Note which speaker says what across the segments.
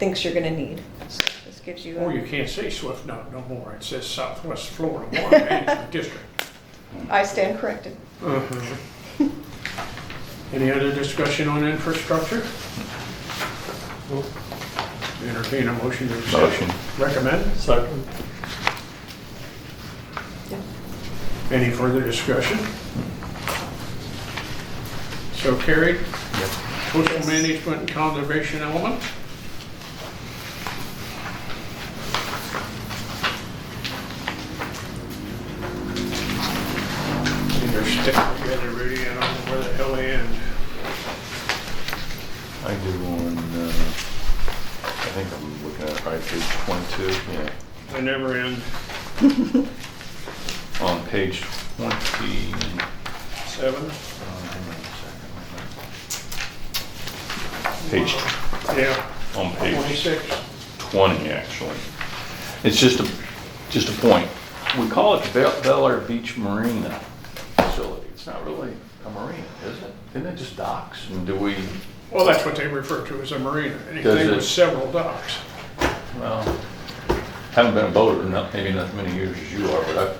Speaker 1: thinks you're gonna need. So This gives you. a-
Speaker 2: Or Oh, you can't say Swift Note no more. It says Southwest Florida Water Management District.
Speaker 1: I stand corrected.
Speaker 2: Uh-huh. Any other discussion on infrastructure? Entertain a motion to accept.
Speaker 3: Motion.
Speaker 2: Recommend.
Speaker 4: Second.
Speaker 2: Any further discussion? So carried. Coastal Management and Conservation Element. And They're sticking together, Rudy, I don't know where the hell they end.
Speaker 3: I do on, uh, I think I'm looking at right page 22, yeah.
Speaker 2: They never end.
Speaker 3: On page uh, 20, um,
Speaker 2: Seven?
Speaker 3: hang on a second, wait a minute. Page,
Speaker 2: Yeah,
Speaker 3: on page
Speaker 2: twenty-six.
Speaker 3: 20, actually. It's just a, just a point. We call it Bel Bel Air Beach Marina facility. It's not really a marina, is it? Isn't it just docks? And do we,
Speaker 2: Well, that's what they refer to as a marina.
Speaker 3: Does
Speaker 2: Anything
Speaker 3: it-
Speaker 2: with several docks.
Speaker 3: well, haven't been a boater, not, maybe not as many years as you are, but I've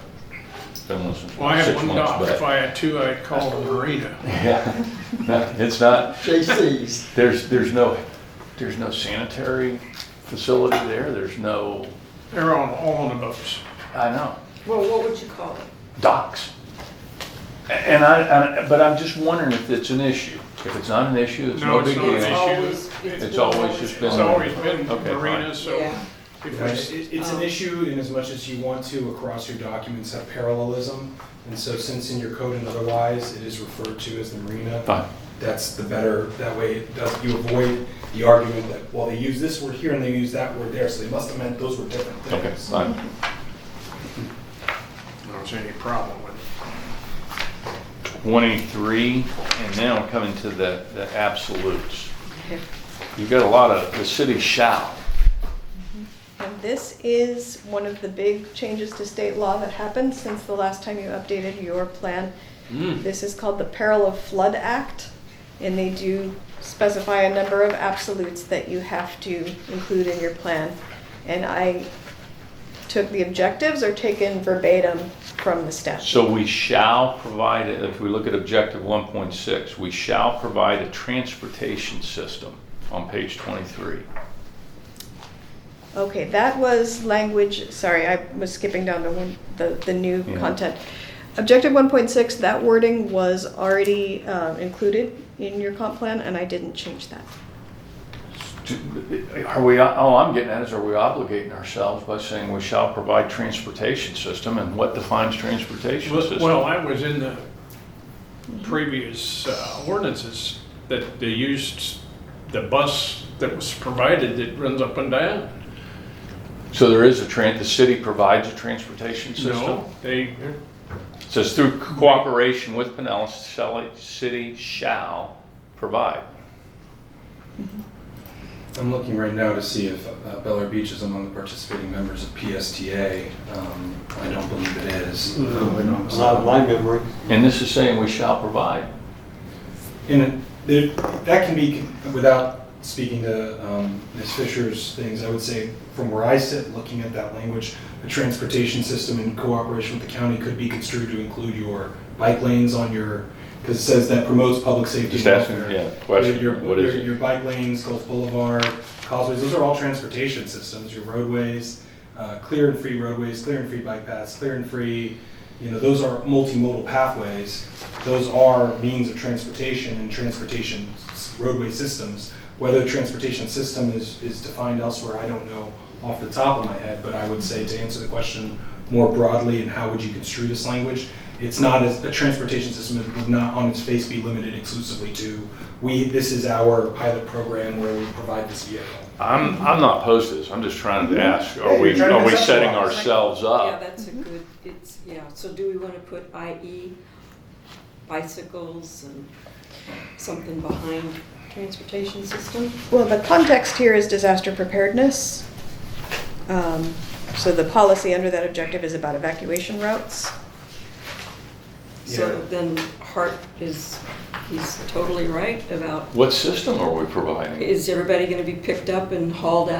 Speaker 3: been one since six months back.
Speaker 2: Well, I have one dock. If I had two, I'd call it a marina.
Speaker 3: Yeah, No, it's not,
Speaker 4: JC's.
Speaker 3: there's, there's no, there's no sanitary facility there, there's no,
Speaker 2: They're on, all on the boats.
Speaker 3: I know,
Speaker 1: Well, what would you call it?
Speaker 3: docks. A- And I, I- but I'm just wondering if it's an issue. If it's not an issue, it's
Speaker 2: No,
Speaker 3: no
Speaker 2: it's
Speaker 3: big
Speaker 2: not an
Speaker 3: deal.
Speaker 2: issue.
Speaker 5: It's
Speaker 3: It's always just been.
Speaker 2: It's always been
Speaker 3: Okay, fine.
Speaker 2: marinas, so
Speaker 5: Yeah.
Speaker 2: if
Speaker 6: Right,
Speaker 2: I,
Speaker 6: it- It's an issue in as much as you want to across your documents have parallelism. And so since in your code and otherwise, it is referred to as the marina,
Speaker 3: Fine,
Speaker 6: that's the better, that way it does, you avoid the argument that, well, they use this word here and they use that word there, so they must have meant those were different
Speaker 3: okay,
Speaker 6: things.
Speaker 3: fine.
Speaker 2: I don't see any problem with it.
Speaker 3: 23, and now we're coming to the, the absolutes. You've got a lot of, the city shall.
Speaker 1: And this is one of the big changes to state law that happened since the last time you updated your plan. This is called the Parallel Flood Act, and they do specify a number of absolutes that you have to include in your plan. And I took the objectives or taken verbatim from the statute.
Speaker 3: So we shall provide, if we look at objective 1.6, we shall provide a transportation system on page 23.
Speaker 1: Okay, that was language, sorry, I was skipping down to one, the, the new
Speaker 3: Yeah.
Speaker 1: content. Objective one point six, that wording was already, uh, included in your comp plan, and I didn't change that.
Speaker 3: Do- Are we, all I'm getting at is are we obligating ourselves by saying we shall provide transportation system and what defines transportation
Speaker 2: Well- Well, that
Speaker 3: system?
Speaker 2: was in the previous uh, ordinances that they used the bus that was provided that runs up and down.
Speaker 3: So there is a tran, the city provides a transportation system?
Speaker 2: No, they,
Speaker 3: So it's through cooperation with Pinellas, shall- city shall provide.
Speaker 6: I'm looking right now to see if uh, Bel Air Beach is among the participating members of PSTA. Um, I don't believe it is.
Speaker 4: Not in my memory.
Speaker 3: And this is saying we shall provide.
Speaker 6: And there, that can be, without speaking to um, Ms. Fisher's things, I would say, from where I sit, looking at that language, a transportation system in cooperation with the county could be construed to include your bike lanes on your, because it says that promotes public safety.
Speaker 3: Just
Speaker 6: and
Speaker 3: asking,
Speaker 6: welfare.
Speaker 3: yeah, question,
Speaker 6: Your- your-
Speaker 3: what is
Speaker 6: your-
Speaker 3: it?
Speaker 6: Your bike lanes, Gulf Boulevard, causeways, those are all transportation systems, your roadways, uh, clear and free roadways, clear and free bike paths, clear and free, you know, those are multimodal pathways. Those are means of transportation and transportation s- roadway systems. Whether transportation system is, is defined elsewhere, I don't know off the top of my head, but I would say to answer the question more broadly and how would you construe this language, it's not as, a transportation system that would not on its face be limited exclusively to, we, this is our pilot program where we provide this vehicle.
Speaker 3: I'm, I'm not opposed to this, I'm just trying to ask, are
Speaker 6: Yeah,
Speaker 3: we,
Speaker 6: you're trying to
Speaker 3: are we
Speaker 6: conceptualize.
Speaker 3: setting ourselves
Speaker 5: Yeah,
Speaker 3: up?
Speaker 5: that's a good, it's, yeah, so do we want to put IE bicycles and something behind transportation system?
Speaker 1: Well, the context here is disaster preparedness. Um, so the policy under that objective is about evacuation routes.
Speaker 6: Yeah.
Speaker 5: So then Hart is, he's totally right about,
Speaker 3: What system are we providing?
Speaker 5: is everybody gonna be picked up and hauled out